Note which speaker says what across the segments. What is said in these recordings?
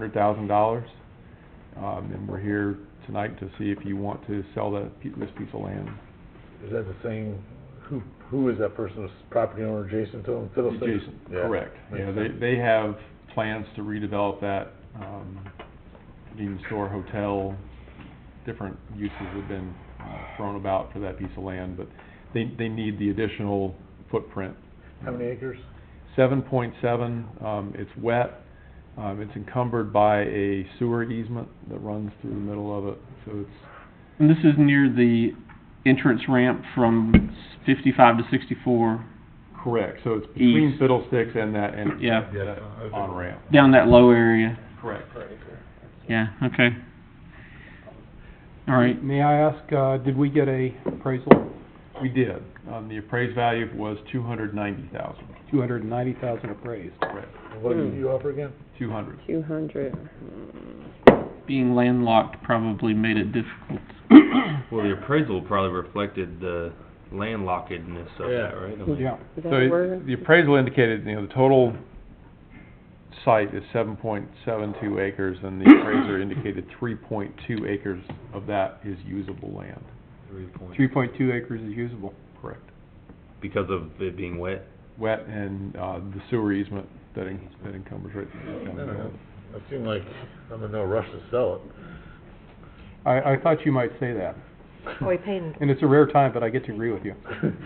Speaker 1: hundred thousand dollars. Um, and we're here tonight to see if you want to sell that, pe- this piece of land.
Speaker 2: Is that the same, who, who is that person, Is property owner adjacent to him, Fiddlesticks?
Speaker 1: Jason,
Speaker 2: Yeah.
Speaker 1: correct.
Speaker 2: makes
Speaker 1: Yeah, they,
Speaker 2: sense.
Speaker 1: they have plans to redevelop that, um, convenience store, hotel, different uses have been uh, thrown about for that piece of land, but they, they need the additional footprint.
Speaker 2: How many acres?
Speaker 1: Seven point seven, um, it's wet, um, it's encumbered by a sewer easement that runs through the middle of it, so it's,
Speaker 3: And this is near the entrance ramp from fifty-five to sixty-four,
Speaker 1: correct, so it's between
Speaker 3: East.
Speaker 1: Fiddlesticks and that, and.
Speaker 3: Yeah.
Speaker 1: On ramp,
Speaker 3: down that low area.
Speaker 1: correct.
Speaker 3: Yeah, okay. All right,
Speaker 4: May I ask, uh, did we get a appraisal?
Speaker 1: We did, um, the appraised value was two hundred ninety thousand,
Speaker 4: Two hundred and ninety thousand appraised.
Speaker 1: correct,
Speaker 2: What did you offer again?
Speaker 1: two hundred.
Speaker 5: Two hundred.
Speaker 3: being landlocked probably made it difficult.
Speaker 6: Well, the appraisal probably reflected the landlockedness of that, right? I mean,
Speaker 4: Yeah.
Speaker 5: Is that
Speaker 1: So
Speaker 5: a
Speaker 1: it-
Speaker 5: word?
Speaker 1: the appraisal indicated, you know, the total site is seven point seven two acres, and the appraiser indicated three point two acres of that is usable land,
Speaker 6: Three point,
Speaker 4: Three point two acres is usable.
Speaker 1: correct?
Speaker 6: because of it being wet.
Speaker 1: Wet and, uh, the sewer easement that en- that encumbers right down the middle.
Speaker 2: It seemed like I'm in no rush to sell it.
Speaker 4: I, I thought you might say that,
Speaker 7: Oh, he paid in
Speaker 4: and it's a rare time, but I get to agree with you.
Speaker 2: It's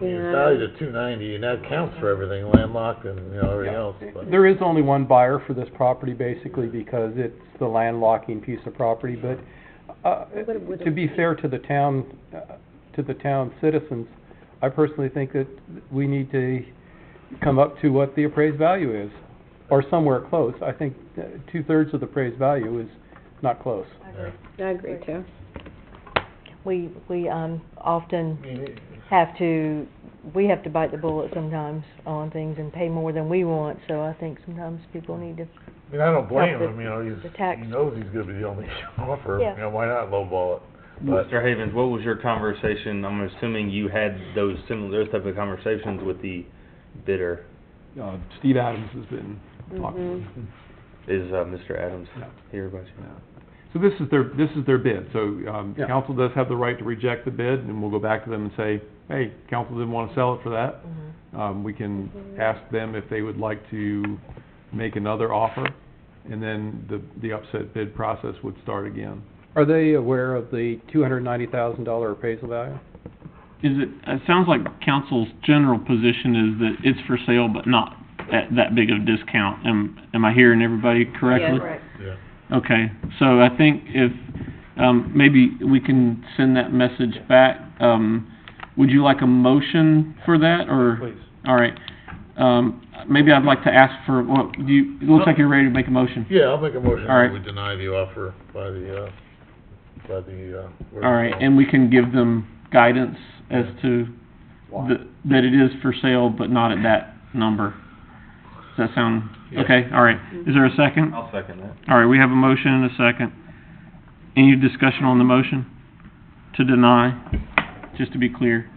Speaker 5: Yeah.
Speaker 2: valued at two ninety, and that counts for everything, landlocked and, you know, everything else, but.
Speaker 4: There is only one buyer for this property, basically, because it's the landlocking piece of property, but, uh,
Speaker 5: But it would've-
Speaker 4: to be fair to the town, uh, to the town citizens, I personally think that we need to come up to what the appraised value is, or somewhere close. I think uh, two-thirds of the appraised value is not close.
Speaker 5: I agree too.
Speaker 7: We, we, um, often
Speaker 2: I mean, it-
Speaker 7: have to, we have to bite the bullet sometimes on things and pay more than we want, so I think sometimes people need to,
Speaker 2: I mean, I don't blame
Speaker 7: the-
Speaker 2: him, you know,
Speaker 7: the
Speaker 2: he's,
Speaker 7: tax.
Speaker 2: he knows he's gonna be the only offer,
Speaker 7: Yeah.
Speaker 2: you know, why not lowball it? But-
Speaker 6: Mr. Havens, what was your conversation, I'm assuming you had those similar, those type of conversations with the bidder,
Speaker 1: Uh, Steve Adams has been
Speaker 4: Mm-hmm.
Speaker 1: talking.
Speaker 6: is, uh, Mr. Adams
Speaker 1: No.
Speaker 6: here by chance?
Speaker 1: So this is their, this is their bid, so, um,
Speaker 4: Yeah.
Speaker 1: council does have the right to reject the bid, and we'll go back to them and say, hey, council didn't wanna sell it for that, Um, we can ask them if they would like to make another offer, and then the, the upset bid process would start again.
Speaker 4: Are they aware of the two hundred ninety thousand dollar appraisal value?
Speaker 3: Is it, it sounds like council's general position is that it's for sale, but not at that big of a discount. Am, am I hearing everybody correctly?
Speaker 2: Yeah.
Speaker 3: Okay, so I think if, um, maybe we can send that message back. Um, would you like a motion for that, or?
Speaker 1: Please.
Speaker 3: All right, um, maybe I'd like to ask for, well, do you, it looks like you're ready to make a motion.
Speaker 2: Yeah, I'll make a motion
Speaker 3: All right.
Speaker 2: that we deny the offer by the, uh, by the, uh. where
Speaker 3: All
Speaker 2: it's
Speaker 3: right,
Speaker 2: going.
Speaker 3: and we can give them guidance as to the, that it is for sale, but not at that number. Does that sound,
Speaker 2: Yeah.
Speaker 3: okay, all right. Is there a second?
Speaker 6: I'll second that.
Speaker 3: All right, we have a motion and a second. Any discussion on the motion? To deny, just to be clear.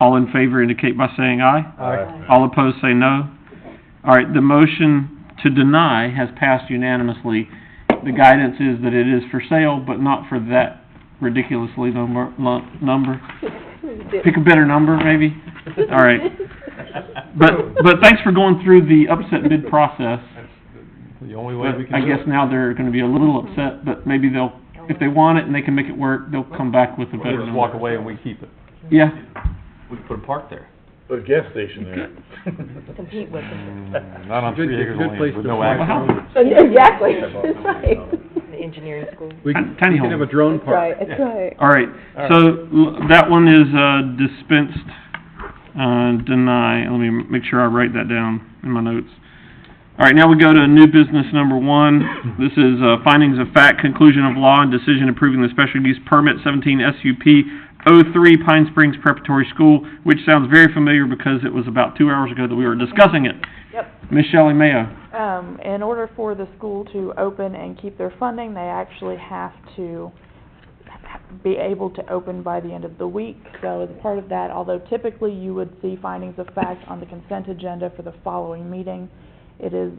Speaker 3: All in favor indicate by saying aye. All opposed say no. All right, the motion to deny has passed unanimously. The guidance is that it is for sale, but not for that ridiculously number, lu- number. Pick a better number, maybe? All right. But, but thanks for going through the upset bid process.
Speaker 1: That's the- the only way
Speaker 3: But
Speaker 1: we can
Speaker 3: I
Speaker 1: do
Speaker 3: guess
Speaker 1: it.
Speaker 3: now they're gonna be a little upset, but maybe they'll, if they want it and they can make it work, they'll come back with a
Speaker 1: They
Speaker 3: better
Speaker 1: just walk
Speaker 3: number.
Speaker 1: away and we keep it.
Speaker 3: Yeah,
Speaker 6: We could put a park there.
Speaker 2: Put a gas station there.
Speaker 7: compete with them,
Speaker 1: Mm, Not on
Speaker 4: Good-
Speaker 1: three acres
Speaker 4: good
Speaker 1: of
Speaker 4: place
Speaker 1: land with
Speaker 4: to
Speaker 1: no
Speaker 4: plant
Speaker 1: access.
Speaker 5: Exactly, that's right.
Speaker 7: the engineering school.
Speaker 4: We
Speaker 3: Tiny-
Speaker 4: can,
Speaker 3: tiny
Speaker 4: we can have
Speaker 3: home.
Speaker 4: a drone
Speaker 5: That's
Speaker 4: park.
Speaker 5: right, that's right.
Speaker 3: all right, so l- that one is, uh, dispensed, uh, deny, let me make sure I write that down in my notes. All right, now we go to new business number one, this is, uh, findings of fact, conclusion of law, and decision approving the special use permit seventeen SUP O oh three Pine Springs Preparatory School, which sounds very familiar because it was about two hours ago that we were discussing it. Yep. Ms. Shelley Mayo.
Speaker 8: Um, in order for the school to open and keep their funding, they actually have to be able to open by the end of the week. So as part of that, although typically you would see findings of fact on the consent agenda for the following meeting, it is